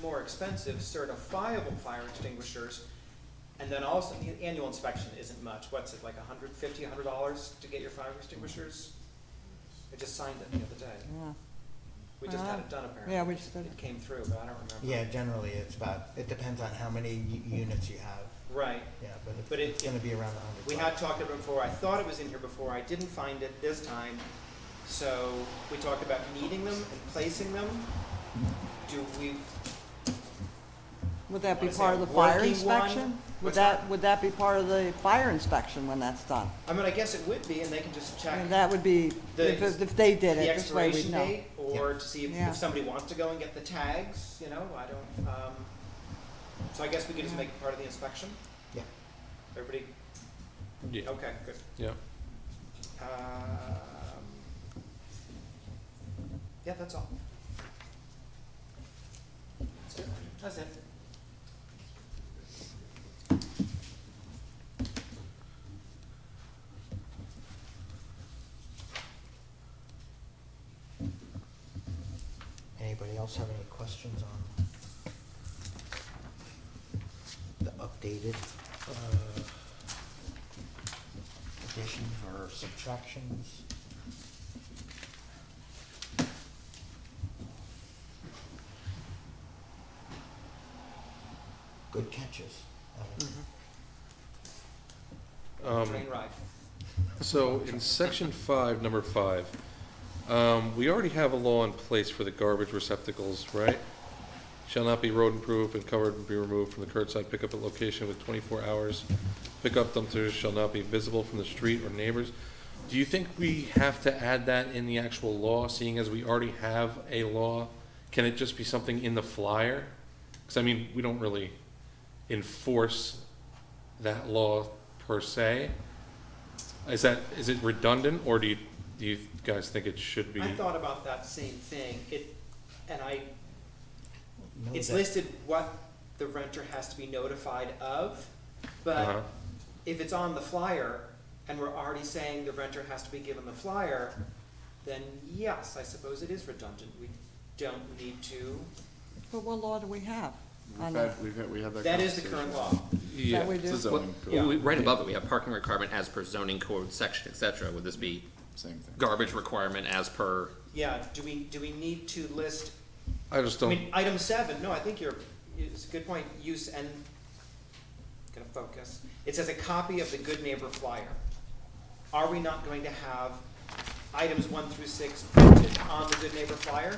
more expensive certifiable fire extinguishers. And then also, the annual inspection isn't much, what's it, like a hundred fifty, a hundred dollars to get your fire extinguishers? I just signed it the other day, Yeah. we just had Wow. it done apparently. Uh, Yeah, we just did it. It came through, but I don't remember. Yeah, generally it's about, it depends on how many u- units you have, Right, yeah, but it's- But it- it's gonna be around a hundred. we had talked about it before, I thought it was in here before, I didn't find it this time. So, we talked about needing them and placing them. Do we, Would that be Wanna say part of the a fire working one? inspection? Would What's that, that? would that be part of the fire inspection when that's done? I mean, I guess it would be, and they can just check. I mean, that would be, The- if, it- if they did it, the this way we'd expiration know. date, or to see if, Yeah. if somebody wants to go and get the tags, you know, I don't, um, so I guess we could just Yeah. make it part of the inspection? Yeah. Everybody, Yeah, okay, good. yeah. Um, yeah, that's all. That's it, that's it. Anybody else have any questions on the updated, uh, additions or subtractions? Good catches, Evan. Um, Train ride. So in section five, number five, um, we already have a law in place for the garbage receptacles, right? Shall not be road improved and covered and be removed from the curbside pickup at location with twenty-four hours. Pickup dumpsters shall not be visible from the street or neighbors. Do you think we have to add that in the actual law, seeing as we already have a law? Can it just be something in the flyer? Because I mean, we don't really enforce that law per se. Is that, is it redundant, or do you, do you guys think it should be? I thought about that same thing, it, and I, No, Hmm. it's that- listed what the renter has to be notified of, Uh-huh. but if it's on the flyer and we're already saying the renter has to be given the flyer, then yes, I suppose it is redundant. We don't need to, But what law do we have on We've that? had, we've had, we had that. that is the current conversation. law. That Yeah. we It's a do? zoning Yeah. code, Well, we- Right above it, we have parking requirement as per zoning code section, et cetera. Would this be same thing. garbage requirement as per? Yeah, do we, do we need to list, I just I don't, mean, item seven, no, I think you're, it's a good point, use and, gonna focus. It says a copy of the good neighbor flyer. Are we not going to have items one through six printed on the good neighbor flyer?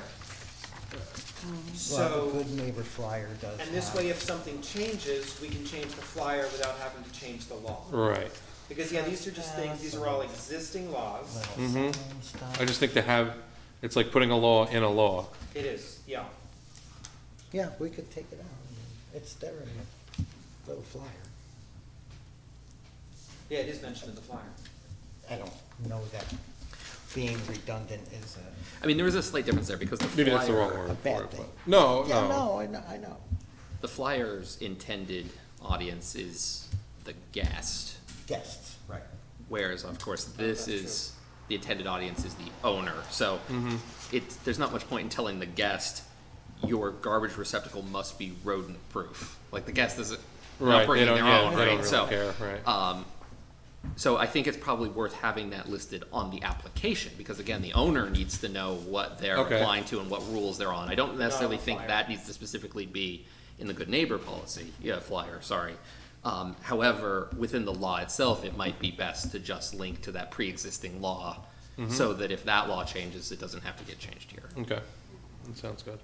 Well, So. the good neighbor flyer does And this have- way, if something changes, we can change the flyer without having to change the law. right. Because, yeah, these are just things, these are all existing laws. Little Mhm. sign stuff. I just think to have, it's like putting a law in a law. It is, yeah. Yeah, we could take it out. I mean, It's there in the little flyer. Yeah, it is mentioned in the flyer. I don't know that being redundant is a, I mean, there is a slight difference there because the flyer. Maybe that's the wrong a word for bad it, thing. but, no, Yeah, no. no, I know, I know. The flyer's intended audience is the guest, Guests. Right. whereas of course this Oh, That's is, the intended audience is the owner. So Mhm. it's, there's not much point in telling the guest, your garbage receptacle must be rodent-proof. Like the guest isn't, Right, they not bringing don't- their yeah, own, they don't right? really So, care, right. um, So I think it's probably worth having that listed on the application, because again, the owner needs to know what they're Okay. applying to and what rules they're on. I don't necessarily a think flyer. that needs to specifically be in the good neighbor policy, yeah, flyer, sorry. Um, however, within the law itself, it might be best to just link to that pre-existing law, so that if that law changes, it doesn't have to get changed here. Okay, that sounds good.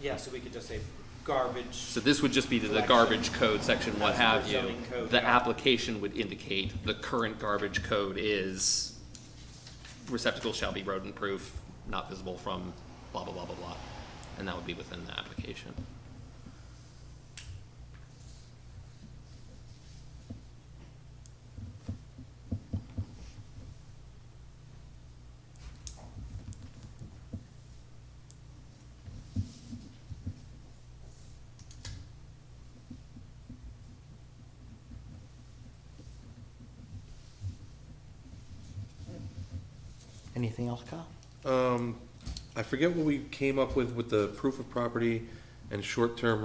Yeah, so we could just say garbage, So this would just be the- the Collection. garbage code section, what That's our have you. zoning code, The yeah. application would indicate the current garbage code is receptacle shall be rodent-proof, not visible from blah, blah, blah, blah, blah. And that would be within the application. Anything else, Kyle? Um, I forget what we came up with with the proof of property and short-term